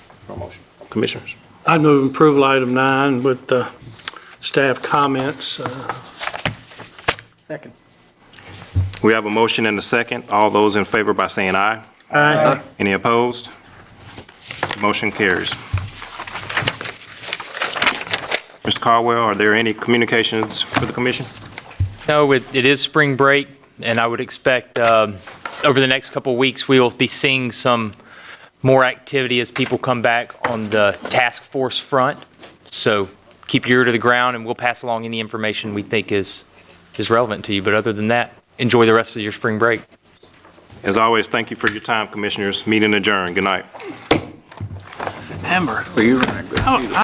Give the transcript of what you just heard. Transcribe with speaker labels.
Speaker 1: No motion. Commissioners?
Speaker 2: I move approval item nine with the staff comments. Uh,
Speaker 3: Second.
Speaker 1: We have a motion and a second. All those in favor by saying aye.
Speaker 2: Aye.
Speaker 1: Any opposed? Motion carries. Mr. Caldwell, are there any communications for the commission?
Speaker 4: No, it, it is spring break, and I would expect, um, over the next couple of weeks, we will be seeing some more activity as people come back on the task force front. So keep your ear to the ground, and we'll pass along any information we think is, is relevant to you. But other than that, enjoy the rest of your spring break.
Speaker 1: As always, thank you for your time, commissioners. Meeting adjourned. Good night.
Speaker 2: Amber.
Speaker 3: Well, you're right.
Speaker 2: I-